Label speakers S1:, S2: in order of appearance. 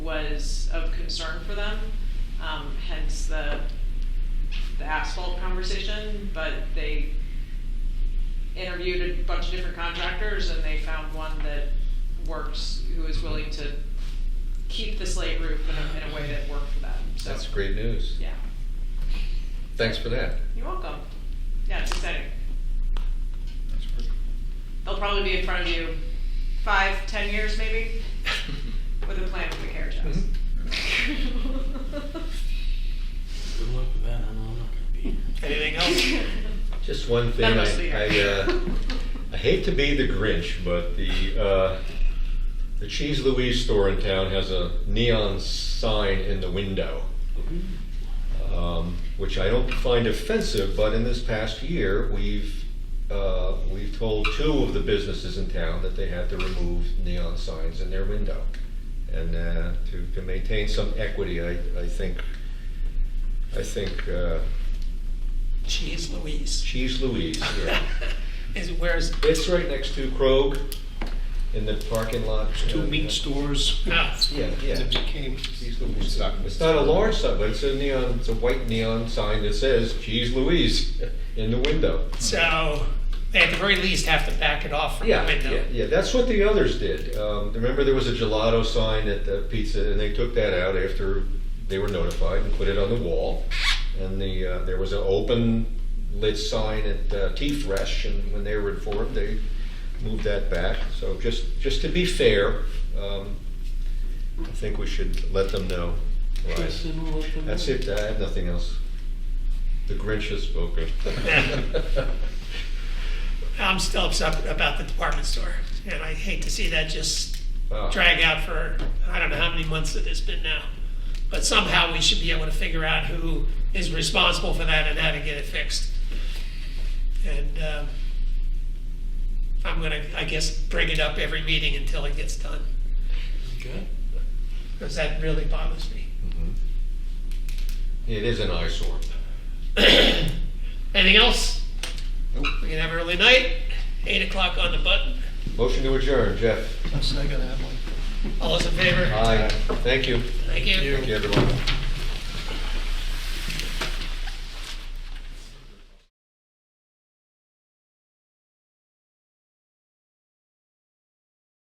S1: is of concern for them, um, hence the, the asphalt conversation, but they interviewed a bunch of different contractors and they found one that works, who is willing to keep the slate roof in a, in a way that worked for them, so.
S2: That's great news.
S1: Yeah,
S2: Thanks for that.
S1: you're welcome. Yeah, it's exciting.
S3: That's perfect.
S1: They'll probably be in front of you five, ten years maybe, with a plan for the carriage house.
S4: Good luck with that, I know I'm not gonna be here.
S3: Anything else?
S2: Just one thing,
S1: None of
S2: I,
S1: us do
S2: I,
S1: that.
S2: uh, I hate to be the Grinch, but the, uh, the Cheese Louise store in town has a neon sign in the window, um, which I don't find offensive, but in this past year, we've, uh, we've told two of the businesses in town that they had to remove neon signs in their window. And, uh, to, to maintain some equity, I, I think, I think, uh,
S3: Cheese Louise.
S2: Cheese Louise, yeah.
S3: Is, where's?
S2: It's right next to Krog in the parking lot.
S5: Two
S2: uh,
S5: meat stores.
S3: Ah,
S2: Yeah, yeah.
S5: It became,
S2: Cheese Louise. It's not a large sign, but it's a neon, it's a white neon sign that says Cheese Louise in the window.
S3: so they at the very least have to back it off from the
S2: Yeah, yeah,
S3: window.
S2: yeah, that's what the others did. Um, remember there was a gelato sign at the pizza and they took that out after they were notified and put it on the wall. And the, uh, there was an open lit sign at uh, T-Fresh and when they were informed, they moved that back. So just, just to be fair, um, I think we should let them know. Right.
S4: Kristen will let them
S2: That's
S4: know.
S2: it, I have nothing else. The Grinch has spoken.
S3: I'm still upset about the department store, and I hate to see that just
S2: Wow.
S3: drag out for, I don't know how many months it has been now. But somehow we should be able to figure out who is responsible for that and how to get it fixed. And um, I'm gonna, I guess, bring it up every meeting until it gets done,
S4: Okay.
S3: because that really bothers me.
S2: Mhm. It is an eyesore.
S3: Anything else?
S2: Nope.
S3: We can have early night, eight o'clock on the button.
S2: Motion to adjourn, Jeff.
S5: I'm second that one.
S3: All those in favor?
S2: Aye. Thank you.
S3: Thank you.
S2: Thank you, everyone.